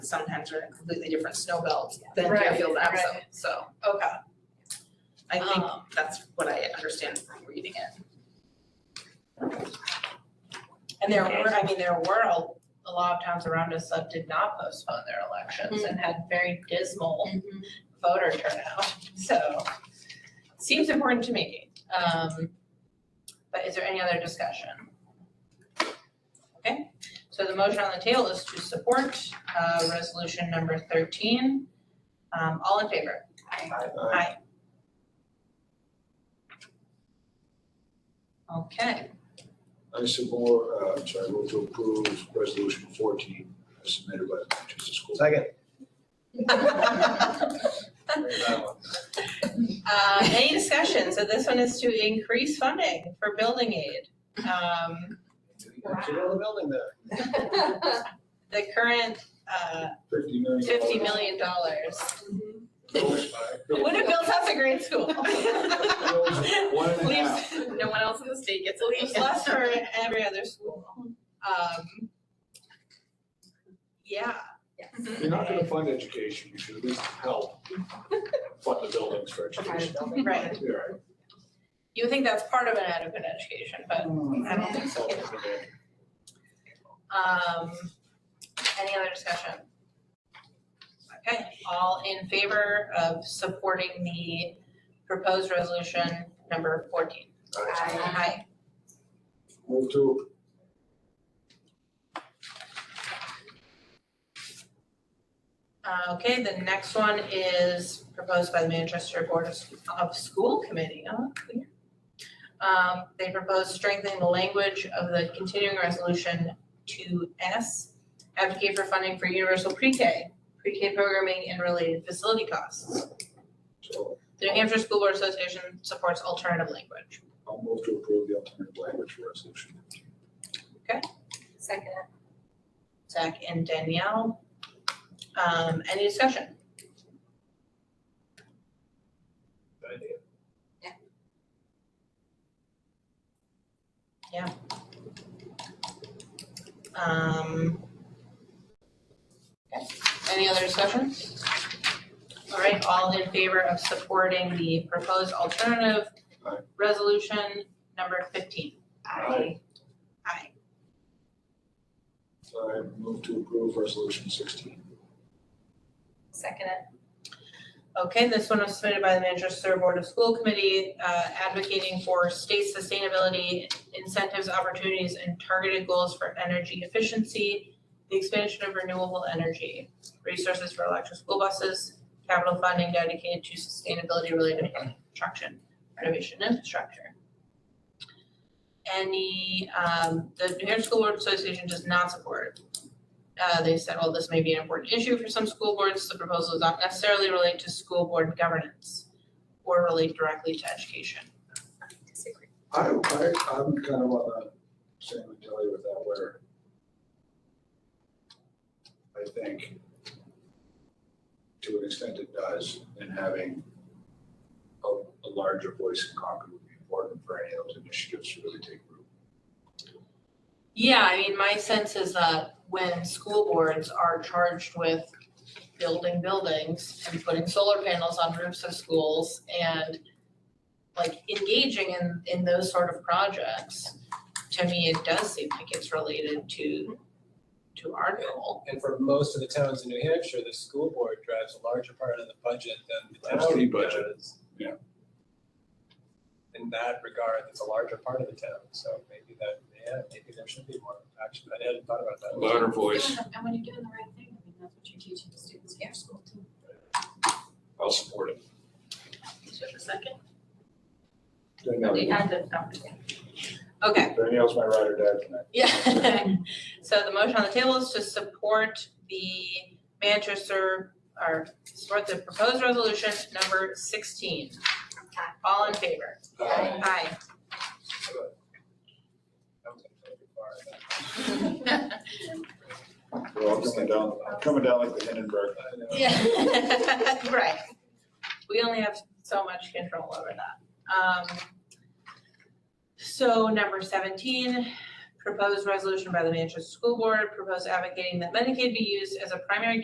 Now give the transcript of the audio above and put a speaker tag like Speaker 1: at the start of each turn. Speaker 1: sometimes are in a completely different snow belt than
Speaker 2: Right,
Speaker 1: Deerfield and Epsom,
Speaker 2: right.
Speaker 1: so
Speaker 2: Okay,
Speaker 1: I think
Speaker 2: Um.
Speaker 1: that's what I understand from reading it.
Speaker 2: and there were, I mean, there were a, a lot of towns around us that did not postpone their elections
Speaker 1: Mm-hmm.
Speaker 2: and had very dismal voter turnout, so seems important to me. Um, but is there any other discussion? Okay, so the motion on the table is to support, uh, resolution number thirteen. Um, all in favor? Aye. Okay,
Speaker 3: I support, uh, I'm sorry, I move to approve resolution fourteen as submitted by the Manchester School.
Speaker 4: Second.
Speaker 2: Uh, any discussion? Uh, So this one is to increase funding for building aid. Um,
Speaker 4: You know the building there.
Speaker 2: the current, uh,
Speaker 3: Fifty million.
Speaker 2: fifty million dollars
Speaker 3: Bills,
Speaker 2: would have built us a great school.
Speaker 3: bills, One and a half.
Speaker 2: Leaves,
Speaker 1: No one else in the state gets a
Speaker 2: leaves less for every other school. Um, yeah,
Speaker 3: You're not gonna fund education, you should at least help fund the buildings for education.
Speaker 2: right.
Speaker 3: You're right.
Speaker 2: You would think that's part of an adequate education, but I don't think so.
Speaker 3: Okay.
Speaker 2: Um, any other discussion? Okay, all in favor of supporting the proposed resolution number fourteen?
Speaker 3: All right.
Speaker 2: Aye.
Speaker 3: Move to,
Speaker 2: Uh, okay, the next one is proposed by the Manchester Board of, of School Committee, oh, clear. Um, they propose strengthening the language of the continuing resolution to S, advocate for funding for universal pre-K, pre-K programming and related facility costs.
Speaker 3: so
Speaker 2: The New Hampshire School Board Association supports alternative language.
Speaker 3: I'll move to approve the alternative language for resolution.
Speaker 5: Second.
Speaker 2: Zach and Danielle. Um, any discussion?
Speaker 3: Good idea.
Speaker 2: Um. okay. Any other discussion? All right, all in favor of supporting the proposed alternative
Speaker 3: Aye.
Speaker 2: resolution number fifteen?
Speaker 3: Aye.
Speaker 2: Aye.
Speaker 3: So I move to approve resolution sixteen.
Speaker 5: Second.
Speaker 2: Okay, this one was submitted by the Manchester Board of School Committee, uh, advocating for state sustainability incentives, opportunities, and targeted goals for energy efficiency, the expansion of renewable energy, resources for electric school buses, capital funding dedicated to sustainability-related construction, renovation, and infrastructure. Any, um, the New Hampshire School Board Association does not support uh, they said, well, this may be an important issue for some school boards. The proposal does not necessarily relate to school board governance or relate directly to education.
Speaker 5: Disagree.
Speaker 3: I, I, I'm kind of on the same mentality with that where I think to an extent it does, and having a, a larger voice in Concord would be important for any of those initiatives to really take root.
Speaker 2: Yeah, I mean, my sense is that when school boards are charged with building buildings and putting solar panels on roofs of schools and like engaging in, in those sort of projects, to me, it does seem like it's related to, to our goal.
Speaker 4: And for most of the towns in New Hampshire, the school board drives a larger part of the budget than the
Speaker 3: That's the
Speaker 4: county
Speaker 3: budget,
Speaker 4: does.
Speaker 3: yeah.
Speaker 4: In that regard, it's a larger part of the town, so maybe that, yeah, maybe there should be more action. I hadn't thought about that.
Speaker 3: voice.
Speaker 5: And when you're doing the right thing, I mean, that's what you're teaching the students in your school too.
Speaker 3: I'll support it.
Speaker 2: Is there a second?
Speaker 3: Danielle,
Speaker 2: Okay,
Speaker 3: Danielle's my ride or die tonight.
Speaker 2: Yeah. So the motion on the table is to support the Manchester, or support the proposed resolution number sixteen. All in favor?
Speaker 3: Aye.
Speaker 2: Aye.
Speaker 4: That was a bit far, but-
Speaker 3: We're all coming down, coming down like the Hindenburg.
Speaker 4: I know.
Speaker 2: Right. We only have so much control over that. Um, So number seventeen, proposed resolution by the Manchester School Board, proposed advocating that Medicaid be used as a primary